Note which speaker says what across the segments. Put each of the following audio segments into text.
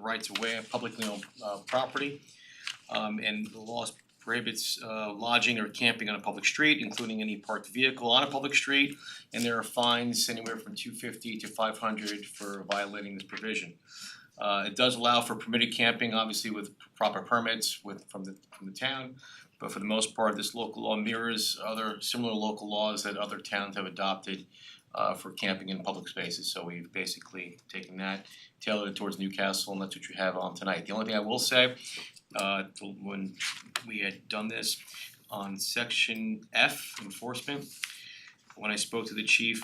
Speaker 1: rights of way on publicly owned uh property. Um and the law prohibits uh lodging or camping on a public street, including any parked vehicle on a public street. And there are fines anywhere from two fifty to five hundred for violating this provision. Uh it does allow for permitted camping, obviously with proper permits with from the from the town. But for the most part, this local law mirrors other similar local laws that other towns have adopted uh for camping in public spaces, so we've basically taken that, tailored it towards Newcastle, and that's what you have on tonight. The only thing I will say, uh when we had done this on section F enforcement, when I spoke to the chief,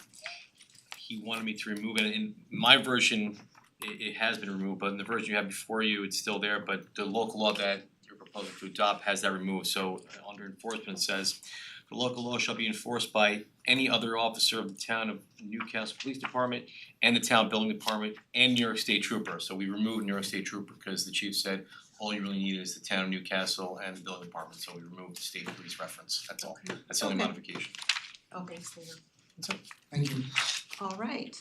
Speaker 1: he wanted me to remove it, in my version, it it has been removed, but in the version you have before you, it's still there, but the local law that you're proposing to adopt has that removed, so uh, under enforcement it says the local law shall be enforced by any other officer of the town of Newcastle Police Department and the town building department and New York State Trooper. So we removed New York State Trooper because the chief said all you really need is the town of Newcastle and the building department, so we removed the state police reference, that's all, that's the only
Speaker 2: Okay.
Speaker 1: modification.
Speaker 2: Oh, thanks, David.
Speaker 3: Thank you.
Speaker 2: All right.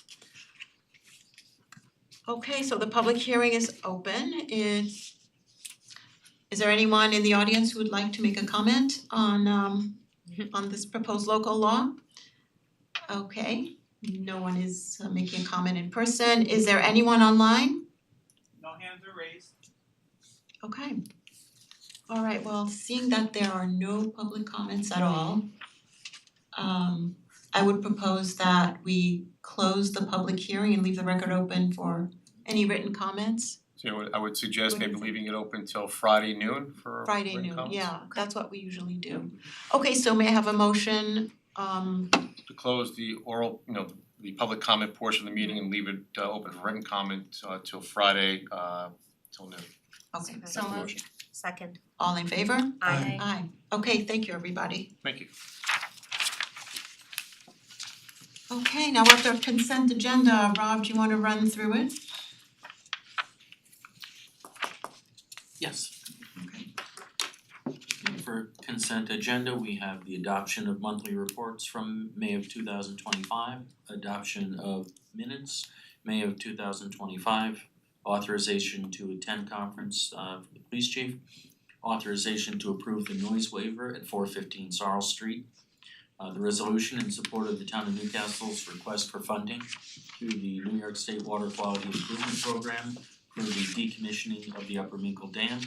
Speaker 2: Okay, so the public hearing is open. Is is there anyone in the audience who would like to make a comment on um on this proposed local law? Okay, no one is uh, making a comment in person. Is there anyone online?
Speaker 4: No hands are raised.
Speaker 2: Okay. All right, well, seeing that there are no public comments at all, um I would propose that we close the public hearing and leave the record open for any written comments.
Speaker 1: So I would I would suggest
Speaker 2: What do you
Speaker 1: maybe
Speaker 2: think?
Speaker 1: leaving it open till Friday noon for
Speaker 2: Friday
Speaker 1: written
Speaker 2: noon,
Speaker 1: comments.
Speaker 2: yeah, that's what we usually do. Okay, so may I have a motion um
Speaker 1: To close the oral, you know, the public comment portion of the meeting and leave it uh open for written comment uh till Friday uh till noon.
Speaker 2: okay,
Speaker 5: So
Speaker 1: Motion.
Speaker 5: moved. Second.
Speaker 2: all in favor?
Speaker 5: Aye.
Speaker 2: Aye. Okay, thank you, everybody.
Speaker 1: Thank you.
Speaker 2: Okay, now we're at the consent agenda. Rob, do you wanna run through it?
Speaker 6: Yes. For consent agenda, we have the adoption of monthly reports from May of two thousand twenty-five, adoption of minutes, May of two thousand twenty-five, authorization to attend conference uh for the police chief, authorization to approve the noise waiver at four fifteen Sarl Street, uh, the resolution in support of the town of Newcastle's request for funding through the New York State Water Quality Improvement Program for the decommissioning of the Upper Minkle Dam.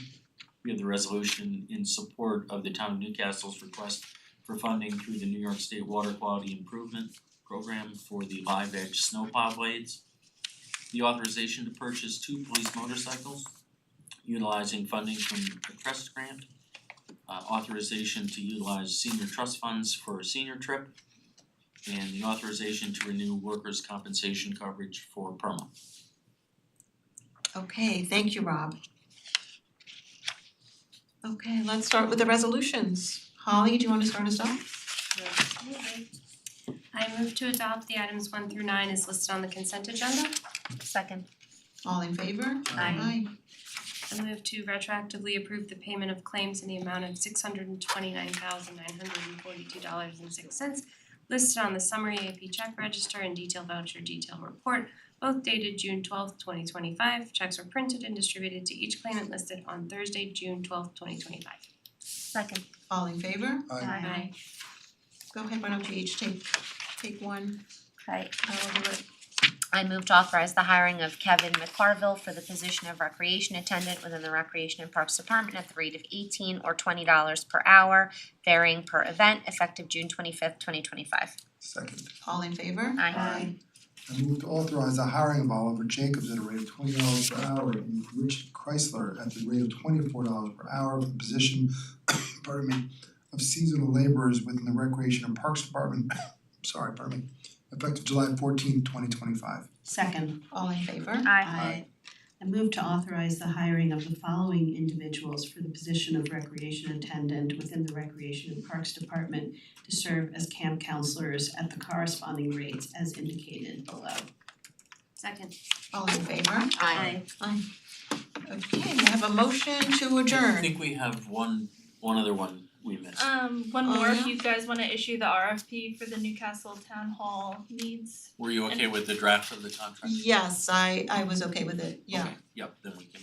Speaker 6: We have the resolution in support of the town of Newcastle's request for funding through the New York State Water Quality Improvement Program for the live edge snowplow blades. The authorization to purchase two police motorcycles utilizing funding from the trust grant. Uh, authorization to utilize senior trust funds for a senior trip. And the authorization to renew workers' compensation coverage for PERMA.
Speaker 2: Okay, thank you, Rob. Okay, let's start with the resolutions. Holly, do you wanna start us off?
Speaker 7: I move to adopt the items one through nine as listed on the consent agenda.
Speaker 5: Second.
Speaker 2: All in favor?
Speaker 7: Aye. I move to retroactively approve the payment of claims in the amount of six hundred and twenty-nine thousand nine hundred and forty-two dollars and six cents listed on the summary AP check register and detail voucher detail report, both dated June twelfth, twenty twenty-five. Checks were printed and distributed to each claimant listed on Thursday, June twelfth, twenty twenty-five.
Speaker 5: Second.
Speaker 2: All in favor?
Speaker 3: Aye.
Speaker 2: Aye. Go ahead, why don't you each take take one,
Speaker 5: Right.
Speaker 2: I'll do it.
Speaker 5: I move to authorize the hiring of Kevin McCarville for the position of recreation attendant within the Recreation and Parks Department at the rate of eighteen or twenty dollars per hour, varying per event, effective June twenty-fifth, twenty twenty-five.
Speaker 3: Second,
Speaker 2: All in favor?
Speaker 5: Aye.
Speaker 3: I move to authorize the hiring of Oliver Jacobs at a rate of twenty dollars per hour and Richard Chrysler at the rate of twenty-four dollars per hour for the position, pardon me, of seasonal laborers within the Recreation and Parks Department, sorry, pardon me, effective July fourteenth, twenty twenty-five.
Speaker 8: Second,
Speaker 2: All in favor?
Speaker 5: Aye.
Speaker 8: I I move to authorize the hiring of the following individuals for the position of recreation attendant within the Recreation and Parks Department to serve as camp counselors at the corresponding rates as indicated below.
Speaker 7: Second.
Speaker 2: All in favor?
Speaker 5: Aye.
Speaker 2: Aye. Okay, we have a motion to
Speaker 6: I
Speaker 2: adjourn.
Speaker 6: think we have one, one other one we missed.
Speaker 9: Um, one
Speaker 2: Oh,
Speaker 9: more,
Speaker 2: yeah?
Speaker 9: if you guys wanna issue the RFP for the Newcastle Town Hall needs.
Speaker 6: Were you okay with the draft of the contract?
Speaker 2: Yes, I I was okay with it, yeah.
Speaker 6: Okay, yep, then we can